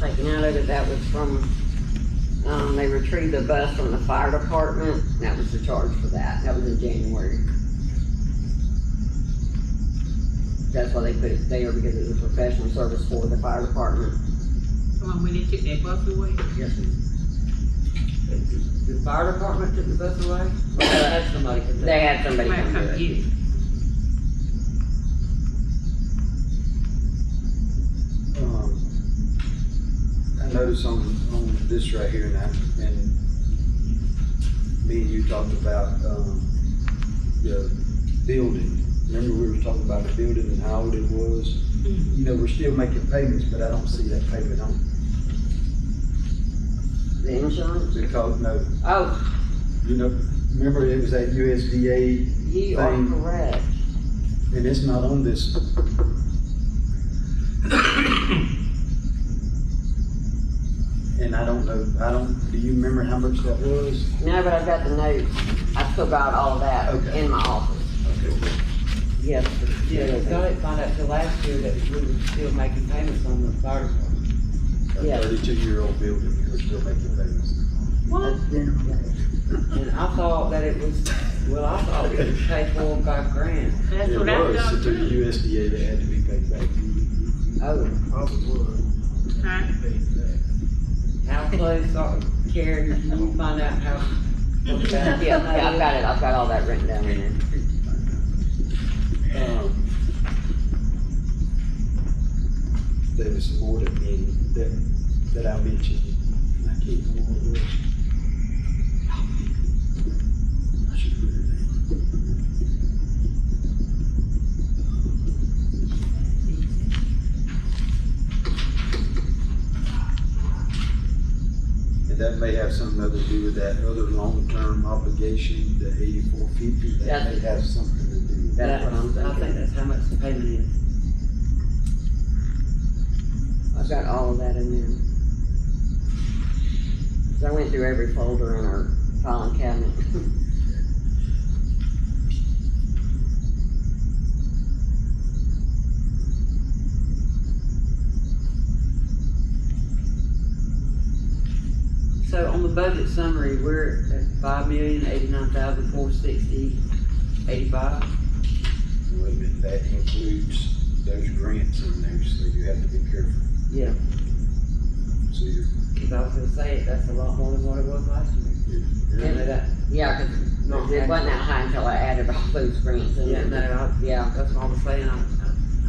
and I know that that was from, um, they retrieved a bus from the fire department, and that was the charge for that, that was in January. That's why they put it there, because it was a professional service for the fire department. Someone went and took that bus away. Yes, The fire department took the bus away? Well, that's somebody, 'cause They had somebody Might come come do it. get it. Um, I noticed on, on this right here, and I, and me and you talked about, um, the building. Remember we were talking about the building and how old it was? Mhm. You know, we're still making payments, but I don't see that payment on, The insurance? because, no, Oh, you know, remember it was that USDA, you are Thing. correct. and it's not on this. And I don't know, I don't, do you remember how much that was? No, but I've got the notes. I took out all of that Okay. in my office. Okay. Yes. Yeah, the Senate found out till last year that we were still making payments on the fire department. Yeah. a thirty-two-year-old building, we're still making payments. What? And I thought that it was, well, I thought it was paid for by grant. That's It what I was, thought it took the too. USDA that had to be paid back. Oh, Huh? How close are, Karen, did you find out how? what yeah, about- yeah, I've got it. I've got all that written down in there. Um, There was some more that me, that, that I mentioned, and I can't remember what it was. I should put it down. And that may have something to do with that other long-term obligation, the eighty-four fifty, that may have something to do with that. That's what I'm I think thinking. that's how much the payment is. I've got all of that in there. 'Cause I went through every folder in our filing cabinet. So on the budget summary, we're at five million, eighty-nine thousand, four sixty, eighty-five. Wait a minute, that includes those grants in there, so you have to be careful. Yeah. So you're, Cause I was gonna say, that's a lot more than what it was last year. you're- And that, Yeah, 'cause no, it wasn't that high until I added all those grants in Yeah, no, there. I, Yeah, That's what I was saying, I,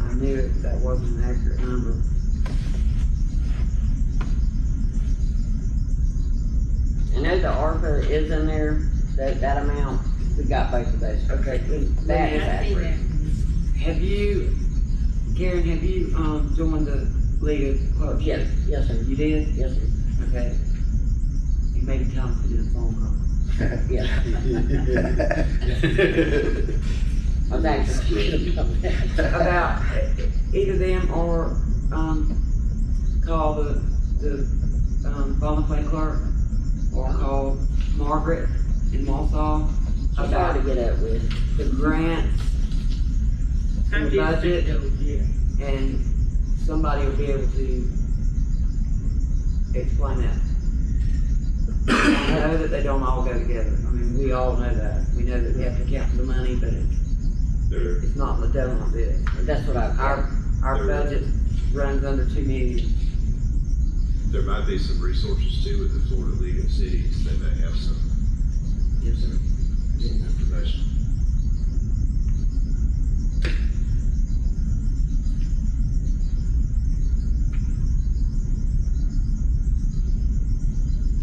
I- I knew it, that wasn't an accurate number. I know the ARPA is in there, that, that amount. We got both of those. Okay. then- That is I see accurate. that. Have you, Karen, have you, um, joined the League of Clubs? Yes, yes, sir. You did? Yes, sir. Okay. You may be telling me this phone call. Yeah, I was actually thinking about that. About either them or, um, call the, the, um, Bonnefield clerk or call Margaret in Walsall I tried to about get up with. the grants I The did budget. think those, yeah. and somebody will be able to explain that. I know that they don't all go together, I mean, we all know that, we know that we have to count the money, but it's, it's not the devil of it. That's what I, Our, our budget runs under two million, There might be some resources too with the Florida League of Cities, they may have some yes, sir. information.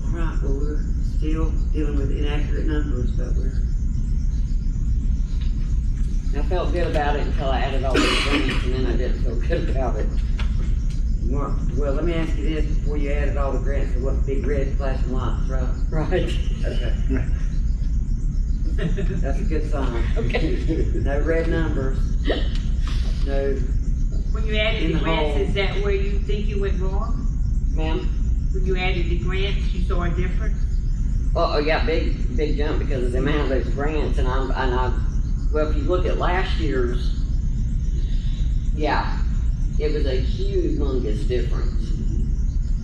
All right, well, we're still dealing with inaccurate numbers, but we're, I felt good about it until I added all those grants and then I didn't feel good about it. we're, well, let me ask you this, before you added all the grants, there wasn't big red flashing lights, right? Right. Okay. That's a good sign. Okay. No red numbers. No, When you In added the the grants, hole. is that where you think you went wrong? Ma'am? When you added the grants, you saw a difference? Oh, oh, yeah, big, big jump because of the amount of those grants and I'm, and I, well, if you look at last year's, yeah, it was a humongous difference.